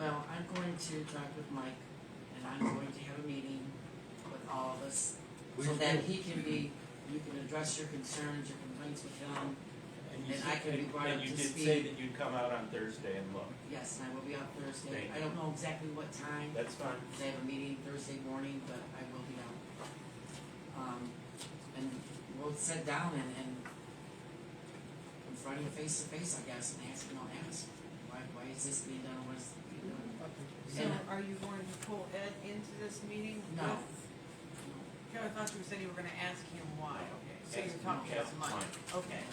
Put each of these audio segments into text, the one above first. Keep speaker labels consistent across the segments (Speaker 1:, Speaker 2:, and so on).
Speaker 1: I'm going to talk with Mike, and I'm going to have a meeting with all of us,
Speaker 2: We-
Speaker 1: so that he can be, you can address your concerns, your complaints with him.
Speaker 3: And you
Speaker 1: And
Speaker 3: said-
Speaker 1: I can be brought
Speaker 3: and
Speaker 1: up to
Speaker 3: you did say
Speaker 1: speed.
Speaker 3: that you'd come out on Thursday and look,
Speaker 1: Yes, and I will be out Thursday.
Speaker 3: Thank
Speaker 1: I don't know exactly what time,
Speaker 3: that's fine.
Speaker 1: because I have a meeting Thursday morning, but I will be out. Um, and we'll sit down and, and confront him face to face, I guess, and ask him, I'll ask, why, why is this being done, what is being done?
Speaker 4: So are you going to pull Ed into this meeting?
Speaker 1: No.
Speaker 4: Okay, I thought you said you were gonna ask him why, okay, so
Speaker 3: Ask
Speaker 4: you're talking
Speaker 3: him,
Speaker 4: to
Speaker 3: ask
Speaker 4: Mike, okay.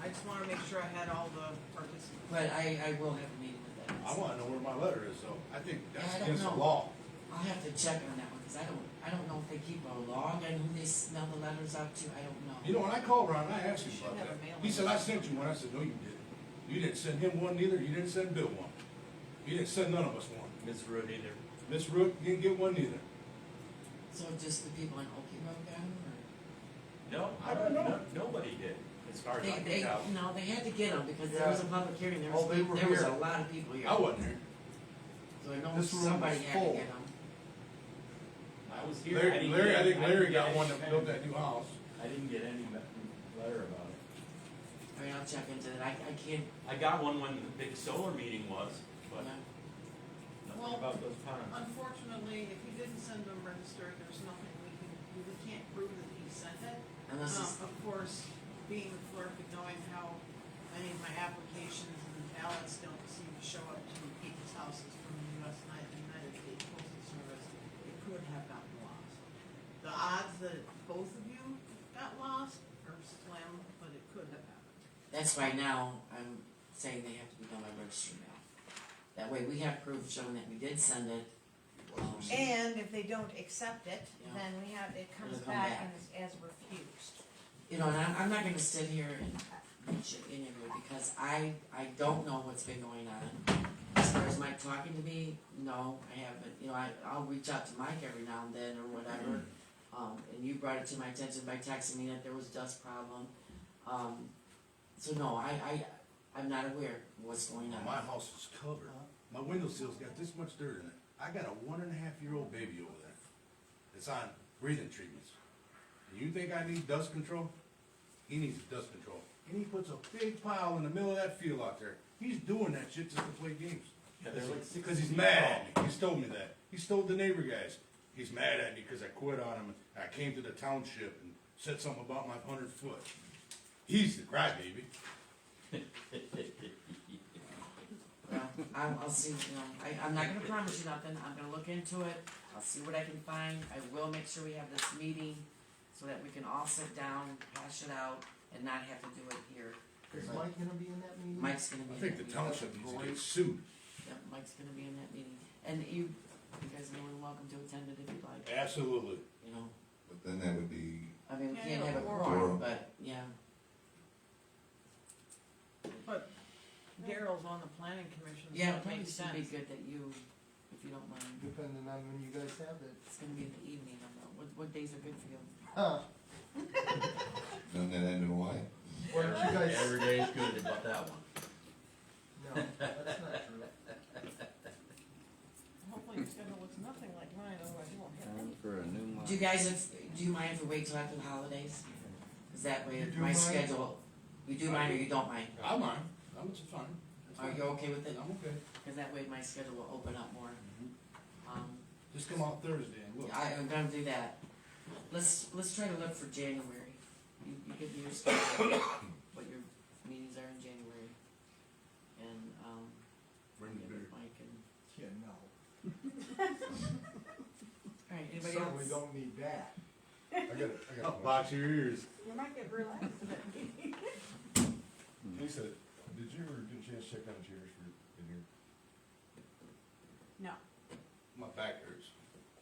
Speaker 4: I just wanna make sure I had all the participants.
Speaker 1: But I, I will have a meeting with that.
Speaker 2: I wanna know where my letter is though, I think
Speaker 1: Yeah, I
Speaker 2: that's
Speaker 1: don't
Speaker 2: against the
Speaker 1: know.
Speaker 2: law.
Speaker 1: I'll have to check on that one, cause I don't, I don't know if they keep a log on who they mail the letters out to, I don't know.
Speaker 2: You know, when I called Ron, I asked him
Speaker 4: You should
Speaker 2: about
Speaker 4: have
Speaker 2: that,
Speaker 4: a mailing.
Speaker 2: he said, I sent you one, I said, no, you didn't. You didn't send him one neither, you didn't send Bill one, you didn't send none of us one.
Speaker 3: Ms. Rude either.
Speaker 2: Miss Rook didn't get one neither.
Speaker 1: So just the people in Okie Road got 'em, or?
Speaker 3: No,
Speaker 2: I don't know.
Speaker 3: no- Nobody did, as far as I
Speaker 1: They, they,
Speaker 3: can tell.
Speaker 1: no, they had to get them, because there was a public hearing, there was,
Speaker 5: Oh, they were
Speaker 1: there was a
Speaker 5: here.
Speaker 1: lot of people here.
Speaker 2: I wasn't here.
Speaker 1: So I know
Speaker 5: This room was
Speaker 1: somebody had to
Speaker 5: full.
Speaker 1: get them.
Speaker 3: I was here, I
Speaker 2: Larry,
Speaker 3: didn't
Speaker 2: Larry,
Speaker 3: get-
Speaker 2: I think
Speaker 3: didn't
Speaker 2: Larry
Speaker 3: get
Speaker 2: got
Speaker 3: any
Speaker 2: one that
Speaker 3: kind
Speaker 2: built
Speaker 3: of-
Speaker 2: that new house.
Speaker 3: I didn't get any me- letter about it.
Speaker 1: I mean, I'll check into that, I, I can't,
Speaker 3: I got one when the big solar meeting was,
Speaker 1: you
Speaker 3: but
Speaker 1: know,
Speaker 3: nothing
Speaker 4: Well-
Speaker 3: about those ponds.
Speaker 4: Unfortunately, if you didn't send them registered, there's nothing we can, we can't prove that he sent it.
Speaker 1: unless it's,
Speaker 4: Um, of course, being the clerk and knowing how many of my applications and ballots don't seem to show up to people's houses from the US Ni- United States Postal Service, it could have gotten lost. The odds that both of you got lost are slim, but it could have happened.
Speaker 1: that's why now, I'm saying they have to be done by registry now. That way, we have proof showing that we did send it, um,
Speaker 6: And if they don't accept it,
Speaker 1: Yeah.
Speaker 6: then we have, it comes
Speaker 1: It'll come
Speaker 6: back
Speaker 1: back.
Speaker 6: and is as refused.
Speaker 1: you know, and I'm, I'm not gonna sit here and mention any of it, because I, I don't know what's been going on. As far as Mike talking to me, no, I haven't, you know, I, I'll reach out to Mike every now and then, or whatever. Um, and you brought it to my attention by texting me that there was dust problem, um, so no, I, I, I'm not aware of what's going
Speaker 2: Now,
Speaker 1: on.
Speaker 2: My house is covered. My window sill's got this much dirt in it. I got a one and a half year old baby over there. It's on breathing treatments. You think I need dust control? He needs dust control. And he puts a big pile in the middle of that field out there. He's doing that shit just to play games.
Speaker 3: Yeah, they're like six
Speaker 2: Cause he's
Speaker 3: feet
Speaker 2: mad at me. He's told me that. He told the neighbor guys. He's mad at me because I quit on him. and I came to the township and said something about my hundred foot. He's the crybaby.
Speaker 1: Well, I'll, I'll see, you know, I, I'm not gonna promise you nothing, I'm gonna look into it, I'll see what I can find, I will make sure we have this meeting so that we can all sit down, hash it out, and not have to do it here.
Speaker 5: Is Mike gonna be in that meeting?
Speaker 1: Mike's gonna
Speaker 2: I
Speaker 1: be in
Speaker 2: think the
Speaker 1: that meeting.
Speaker 2: township needs to
Speaker 1: Roy,
Speaker 2: get sued.
Speaker 1: yeah, Mike's gonna be in that meeting, and you, you guys are more than welcome to attend it if you'd like,
Speaker 2: Absolutely.
Speaker 1: you know,
Speaker 7: But then that would be,
Speaker 1: I mean, we
Speaker 4: Yeah,
Speaker 1: can't have a
Speaker 4: yeah, or-
Speaker 1: quorum, but, yeah,
Speaker 4: But Daryl's on the planning commission, so
Speaker 1: yeah,
Speaker 4: it
Speaker 1: it probably
Speaker 4: makes
Speaker 1: should be
Speaker 4: sense.
Speaker 1: good that you, if you don't mind,
Speaker 5: Depending on when you guys have it.
Speaker 1: it's gonna be in the evening, I don't know, what, what days are good for you?
Speaker 5: Huh,
Speaker 7: then that end in Hawaii.
Speaker 5: why don't you guys,
Speaker 3: Every day is good about that one.
Speaker 5: no, that's not true.
Speaker 4: Hopefully your schedule looks nothing like mine, otherwise you won't have any.
Speaker 8: for a new
Speaker 1: Do you guys, if, do you mind if we wait till after the holidays? Cause that way
Speaker 5: You do
Speaker 1: my
Speaker 5: mind?
Speaker 1: schedule, you do mind or you don't mind?
Speaker 2: I'm fine. I'm just fine. That's
Speaker 1: Are
Speaker 2: fine.
Speaker 1: you okay with it?
Speaker 2: I'm okay.
Speaker 1: Cause that way my schedule will open up more. Um,
Speaker 2: Just come out Thursday and look.
Speaker 1: I, I'm gonna do that. Let's, let's try to look for January. You, you give me your schedule, what your meetings are in January. And, um,
Speaker 2: Bring the
Speaker 1: give
Speaker 2: beer.
Speaker 1: it Mike and,
Speaker 5: Yeah, no.
Speaker 1: alright, anybody else?
Speaker 5: Certainly don't need that.
Speaker 2: I got it. I got it. Oh, Box your ears.
Speaker 4: You might get relaxed in that meeting.
Speaker 9: Lisa, did you ever get a chance to check on chairs for, in here?
Speaker 4: No.
Speaker 2: My back hurts.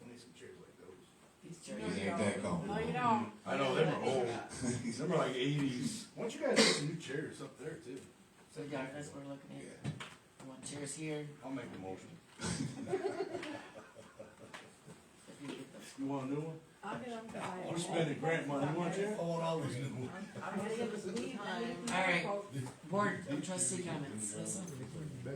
Speaker 2: I need some chairs like those.
Speaker 1: These
Speaker 4: No,
Speaker 1: chairs.
Speaker 7: These ain't that
Speaker 4: No,
Speaker 7: comfortable.
Speaker 4: you don't.
Speaker 2: I know, they were old. These are like eighties. Why don't you guys get some new chairs up there too?
Speaker 1: So, yeah, that's what we're looking
Speaker 2: Yeah,
Speaker 1: at. I want chairs here,
Speaker 2: I'll make a motion.
Speaker 1: if you get those.
Speaker 2: You want a new one?
Speaker 4: I'll get them to buy it.
Speaker 2: We're spending grant money. You want a chair? I want all these new ones.
Speaker 4: I'm gonna give us some time.
Speaker 1: Alright, board trustee comments, Lisa?